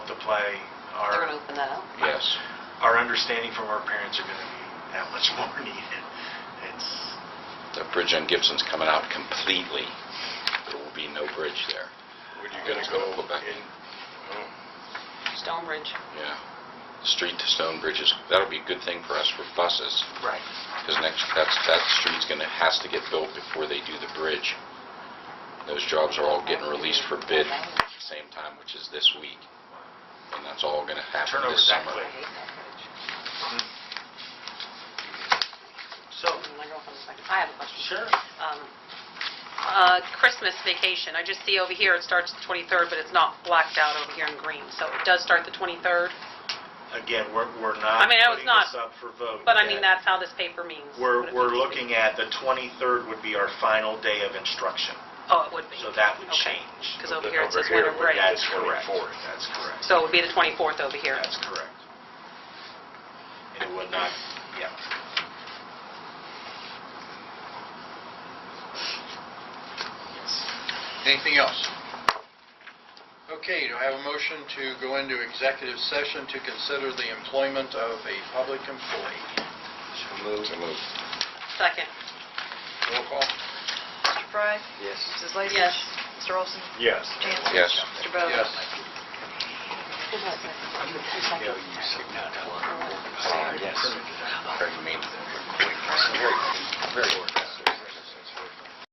play, They're our, going to open that up? yes, our understanding from our parents are going to be that much more needed. It's, The bridge on Gibson's coming out completely. There will be no bridge there. When you It's gonna go gonna go back. in? Oh, Stonebridge. Yeah. Street to Stone Bridge is, that'll be a good thing for us for buses, right. because next, that's, that street's gonna, has to get built before they do the bridge. Those jobs are all getting released for bid at the same time, which is this week. And that's all gonna Turn happen over this that summer. I Right. hate that bridge. So, My girlfriend's like, I have a question. sure. Um, uh, Christmas vacation, I just see over here, it starts the 23rd, but it's not blacked out over here in green, so it does start the 23rd, Again, we're, we're not I mean, I was putting not- this up for vote. but I mean, yet. that's how this paper means. We're, what it we're means to be- looking at, the 23rd would be our final day of instruction, Oh, it would be. so that would Okay. change. Because But over here it over says here it winter would break, add That's correct, 24th. that's correct, so it would be the 24th over here. that's correct. And it would not, yeah. Anything else? Okay, do I have a motion to go into executive session to consider the employment of a public employee? So moved. Second. Roll call. Mr. Fry? Yes. Mrs. Lacy? Yes. Mr. Olson? Yes. Mr. Jansen? Yes. Mr. Bowden? Yes. Very mean. Very, very organized.